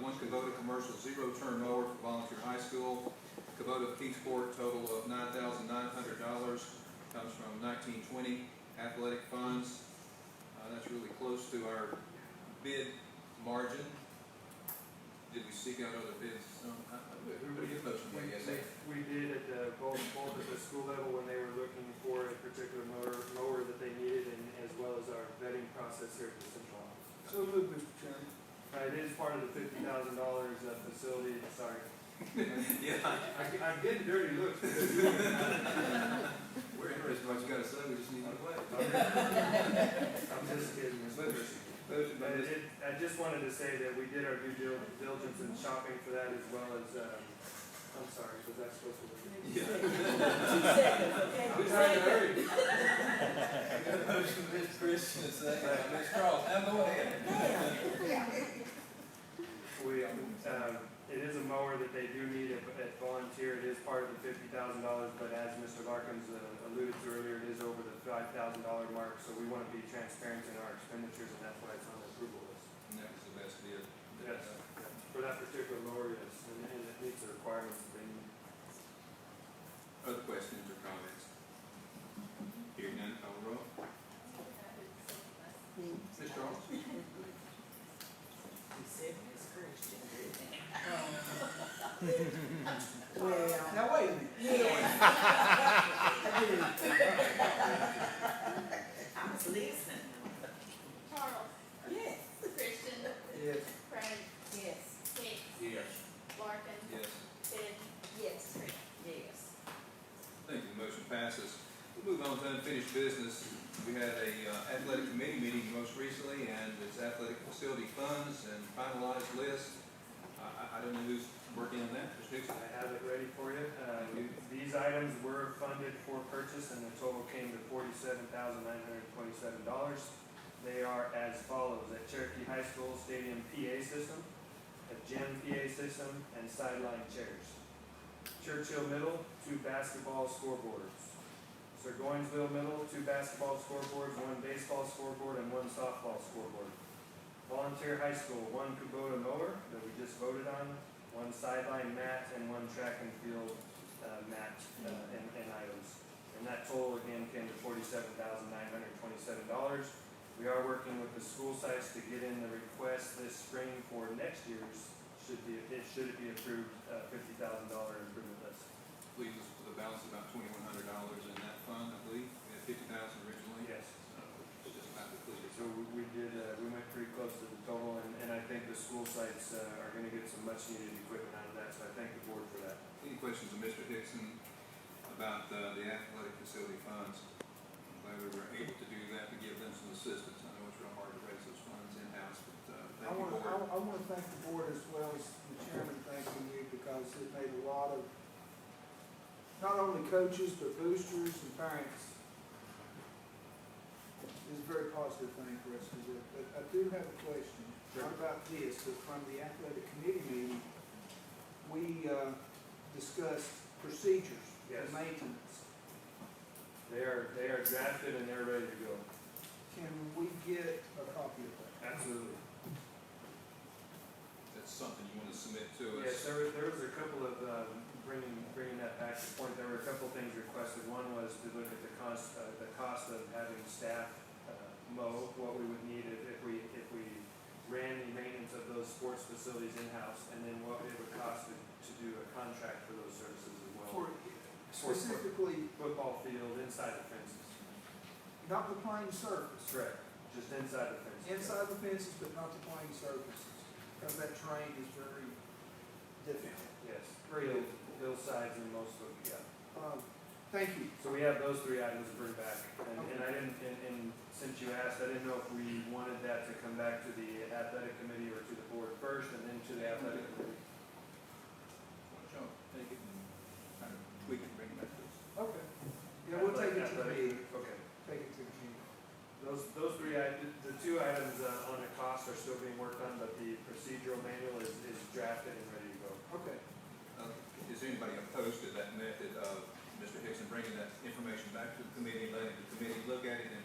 one Kubota commercial zero-turn mower for volunteer high school. Kubota Kingsport, total of nine thousand nine hundred dollars, comes from nineteen twenty athletic funds. Uh, that's really close to our bid margin. Did we seek out other bids? Um, I- I- Everybody get motion, We I guess, eh? we did at the, both, both at the school level when they were looking for a particular mower, mower that they needed and as well as our vetting process here at the central office. So moved, Mr. Chairman. Uh, It is part of the fifty thousand dollars uh facility, sorry. Yeah, I, I'm getting dirty looks. we're interested in what you gotta say, we just need to play. I'm just kidding. Mr. Chairman. Motion by But Ms. it, I just wanted to say that we did our due dil- diligence in shopping for that as well as, um, I'm sorry, was that supposed to be? Who's trying to hurry? Motion, Ms. Christian, second by Ms. Cross, now go ahead. We, um, it is a mower that they do need at, at volunteer, it is part of the fifty thousand dollars, but as Mr. Larkins uh, alluded to earlier, it is over the five thousand dollar mark, so we wanna be transparent in our expenditures, and that's why it's on the approval list. And that was the best bid. Yes. For that particular mower, yes, and, and it meets the requirements that they need. Uh, Other questions or comments? Hearing none, call the roll. Ms. Charles? Well, Now, wait a minute. yeah, I did it. I was listening. Charles, Yes. Christian, Yes. Craig, Yes. Hicks, Yes. Larkin, Yes. Sid, Yes. Tripp. Yes. Thank you, the motion passes. We'll move on to unfinished business. We had a uh, athletic committee meeting most recently, and it's athletic facility funds and finalized list. I, I, I don't know who's working on that, Mr. Nixon? I have it ready for you. Uh, These items were funded for purchase, and the total came to forty-seven thousand nine hundred twenty-seven dollars. They are as follows, a Cherokee High School Stadium PA system, a gym PA system, and sideline chairs. Churchill Middle, two basketball scoreboards. Burgonsville Middle, two basketball scoreboards, one baseball scoreboard, and one softball scoreboard. Volunteer High School, one Kubota mower that we just voted on, one sideline mat and one track and field uh, mat uh, and and items. And that total again came to forty-seven thousand nine hundred twenty-seven dollars. We are working with the school sites to get in the request this spring for next year's, should be, it should it be approved, uh, fifty thousand dollar improvement list. Leaves us with a balance of about twenty-one hundred dollars in that fund, I believe. We had fifty thousand originally. Yes. So it's just about depleted. So we- we did, uh, we went pretty close to the total, and, and I think the school sites uh, are gonna get some much needed equipment out of that, so I thank the board for that. Any questions of Mr. Hickson about uh, the athletic facility funds? I'm glad we were able to do that to give them some assistance. I know it's real hard to raise those funds in-house, but uh, I thank you, want to, board. I want to thank the board as well as the chairman thanking you because it made a lot of, not only coaches, but boosters and parents. It's a very positive thing for us to do. But I do have a question, not about this, but from the athletic committee meeting, we uh, discussed procedures Yes. and maintenance. They are, they are drafted and they're ready to go. Can we get a copy of that? Absolutely. That's something you want to submit to us. Yes, there was, there was a couple of, um, bringing, bringing that back to point, there were a couple things requested. One was to look at the cost, uh, the cost of having staff, uh, mow, what we would need if, if we, if we ran the maintenance of those sports facilities in-house, and then what it would cost to, to do a contract for those services as well. For, specifically, Football field, inside the fences. not the playing surface. Correct. Just inside the fences. inside the fences, but not the playing surfaces, because that terrain is very difficult. Yes, real hillsides and most of, yeah. Um, Thank you. So we have those three items to bring back, and, and I didn't, and, and since you asked, I didn't know if we wanted that to come back to the athletic committee or to the board first, and then to the athletic committee. Why don't y'all take it and kind of tweak it, and bring it back to us? Okay. Yeah, we'll take it to the Athletic- meeting, Okay, take it to the meeting. those, those three, i- the- the two items uh, on the cost are still being worked on, but the procedural manual is, is drafted and ready to go. Okay. Uh, Is anybody opposed to that method of Mr. Hickson bringing that information back to the committee, letting the committee look at it and